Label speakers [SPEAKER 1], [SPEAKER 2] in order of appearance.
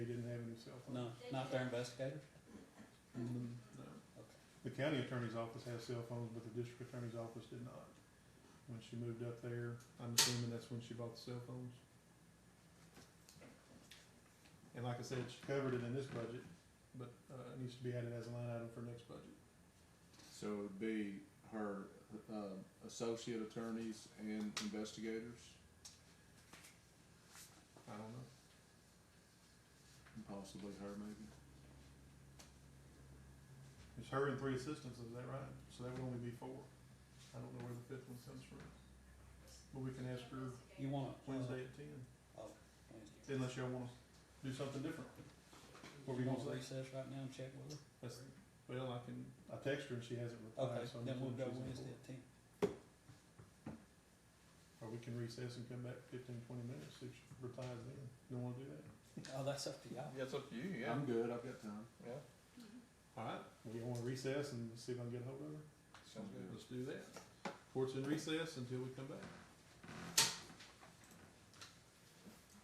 [SPEAKER 1] cell phones.
[SPEAKER 2] No, not their investigators?
[SPEAKER 1] Mm, no.
[SPEAKER 2] Okay.
[SPEAKER 1] The county attorney's office has cell phones, but the district attorney's office did not. When she moved up there, I'm assuming that's when she bought the cell phones. And like I said, she covered it in this budget, but, uh, it needs to be added as a line item for next budget.
[SPEAKER 3] So it would be her, um, associate attorneys and investigators,
[SPEAKER 1] I don't know.
[SPEAKER 3] and possibly her maybe.
[SPEAKER 1] It's her and three assistants, is that right? So that would only be four. I don't know where the fifth one comes from. But we can ask her
[SPEAKER 2] You want? uh,
[SPEAKER 1] Wednesday at ten,
[SPEAKER 2] Wednesday.
[SPEAKER 1] unless y'all wanna do something different. What were
[SPEAKER 2] You
[SPEAKER 1] you
[SPEAKER 2] want to
[SPEAKER 1] gonna say?
[SPEAKER 2] recess right now and check with her?
[SPEAKER 1] That's, well, I can, I text her and she hasn't replied,
[SPEAKER 2] Okay,
[SPEAKER 1] so I'm.
[SPEAKER 2] then we'll go
[SPEAKER 1] assuming she's on
[SPEAKER 2] Wednesday at ten.
[SPEAKER 1] board. Or we can recess and come back fifteen, twenty minutes, see if she replies then. You don't wanna do that?
[SPEAKER 2] Oh, that's up to y'all.
[SPEAKER 4] Yeah, it's up to you, yeah.
[SPEAKER 3] I'm good, I've got time.
[SPEAKER 4] Yeah,
[SPEAKER 1] Alright. Well, you wanna recess and see if I can get a hold of her?
[SPEAKER 4] sounds good.
[SPEAKER 1] Let's do that. Court's in recess until we come back.